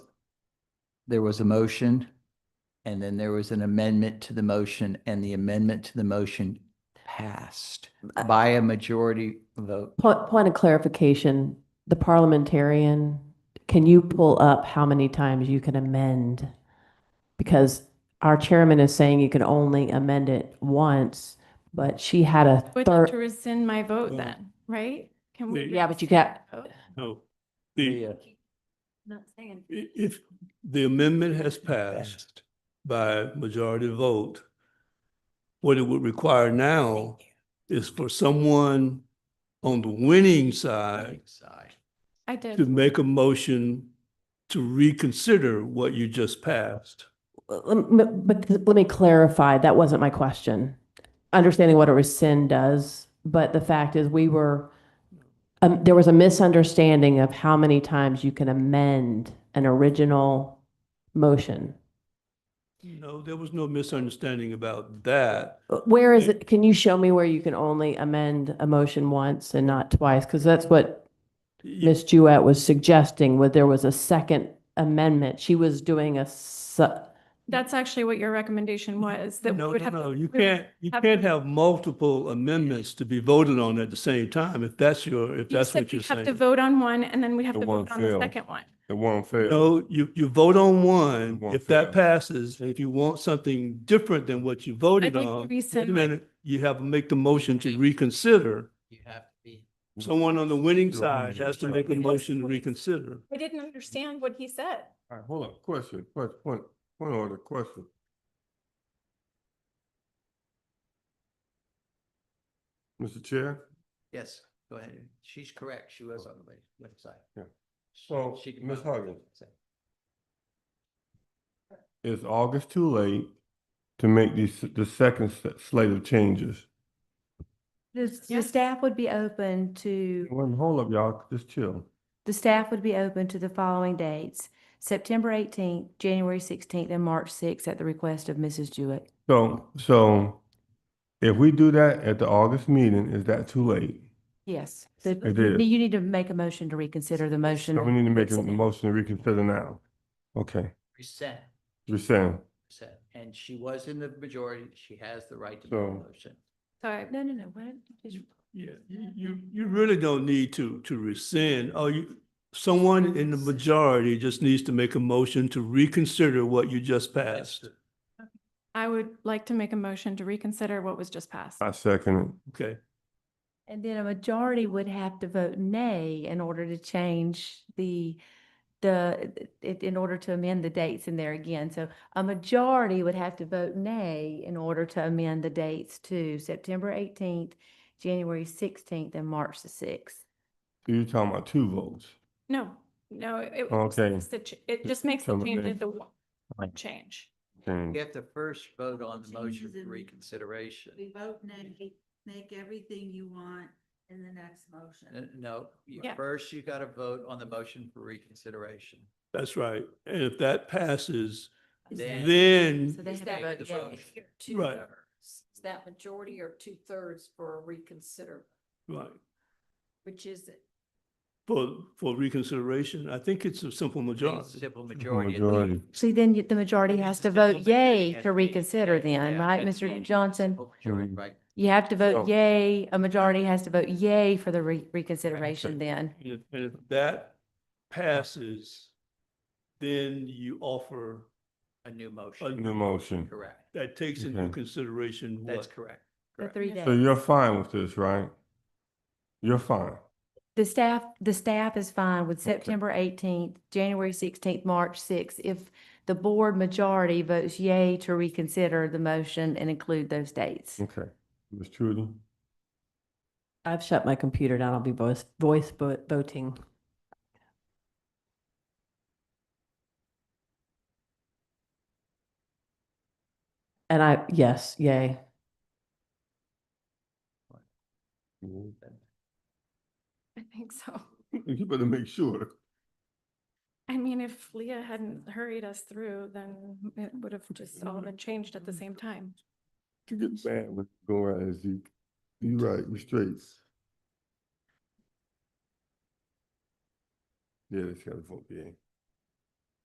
there was a motion and then there was an amendment to the motion and the amendment to the motion passed Uh, by a majority vote. Point, point of clarification, the parliamentarian, can you pull up how many times you can amend? Because our chairman is saying you can only amend it once, but she had a Would like to third. rescind my vote Well, then, right? Can we? the- Yeah, but you got- rescind that vote? No, the, uh, Yeah. i- if the amendment has passed Passed. by majority vote, what it would require now is for someone on the winning side uh, Side. I to did. make a motion to reconsider what you just passed. Let me- But let me clarify, that wasn't my question. Understanding what a rescind does, but the fact is we were, um, there was a misunderstanding of how many times you can amend an original motion. Mm. No, there was no misunderstanding about that. Where is Yeah. it, can you show me where you can only amend a motion once and not twice? Because that's what Y- Ms. Jewett was suggesting, where there was a second amendment. She was doing a su- That's actually what your recommendation was, that we No, would no, have. no, you we would can't, you have- can't have multiple amendments to be voted on at the same time, if that's your, if You that's said what you're we'd Have to saying. vote on one and then we have The to one vote on the failed. second one. It won't fail. No, you, you vote on one. won't If that fail. passes, if you want something different than what you I'd voted like on, to wait a rescind, my- minute, you have to make the motion to reconsider. You have to be. Someone on the Mm-hmm. winning Right. side has to make a motion to reconsider. I didn't understand what he said. All right, hold on, question, question, point, point of order, question. Mr. Chair, Yes, go ahead. She's correct. She was on the left- left side. Yeah. She- So, she did Ms. not- Huggins. is August too late to make these, the second s- slate of changes? The, s- the staff would be open to, One, hold up, y'all, just chill. the staff would be open to the following dates. September eighteenth, January sixteenth, and March sixth at the request of Mrs. Jewett. So, so if we do that at the August meeting, is that too late? Yes. The- It is. You need to make a motion to reconsider the motion. So we need to make a Rescind. motion to reconsider now. Okay, Resent, you're saying, resent. And she was in the majority. She has the right to make So- a motion. So I- No, no, no, what? Just- Yeah, you, you, you really don't need to, to rescind. Oh, you, someone in the majority just needs to make a motion to reconsider what you just passed. I would like to make a motion to reconsider what was just passed. Uh, I second Okay, And then a majority would have to vote nay in order to change the, the, it, in order to amend the dates in there again. So a majority would have to vote nay in order to amend the dates to September eighteenth, January sixteenth, and March the sixth. it. You're talking about two votes. No, no, it. just Okay. makes the ch- It just makes the So change then- into one one change. Change. You have to first vote on the motion Changes in for the- reconsideration. We vote nay, make everything you want in the next N- motion. Uh, No, you- Yeah. first you got to vote on the motion for reconsideration. that's right. And if that passes, Then- then So they have Make the to vote yay. motion. two Right. thirds. Is that majority or two thirds for a reconsider? Right, Which is it? for, for reconsideration, I think it's a simple It's a majority. Simple majority. at the- majority. See, then you- the majority has to vote yay to reconsider then, Yeah, right, that's Mr. right. Johnson? Simple majority, Mhm. Right. You have to So- vote yay, a majority has to vote yay for the re- reconsideration then. And if- and if that passes, then you offer, A new motion. New motion. Correct. that takes into Okay. consideration That's what? correct. The Correct. three Yeah. days. So you're fine with this, right? You're fine. The staff, the staff is fine with September eighteenth, January sixteenth, March sixth, if the board majority votes yay to reconsider the motion and include those dates. Okay. Ms. Trudy? I've shut my computer down, I'll be voice, voice vo- voting. And I, yes, yay. You I think so. better make sure. I mean, if Leah hadn't hurried us through, then it would have just Mm-hmm. all been changed at the same time. You get mad when you go around and see. You right, we straight. Yeah, they has gotta vote, yeah.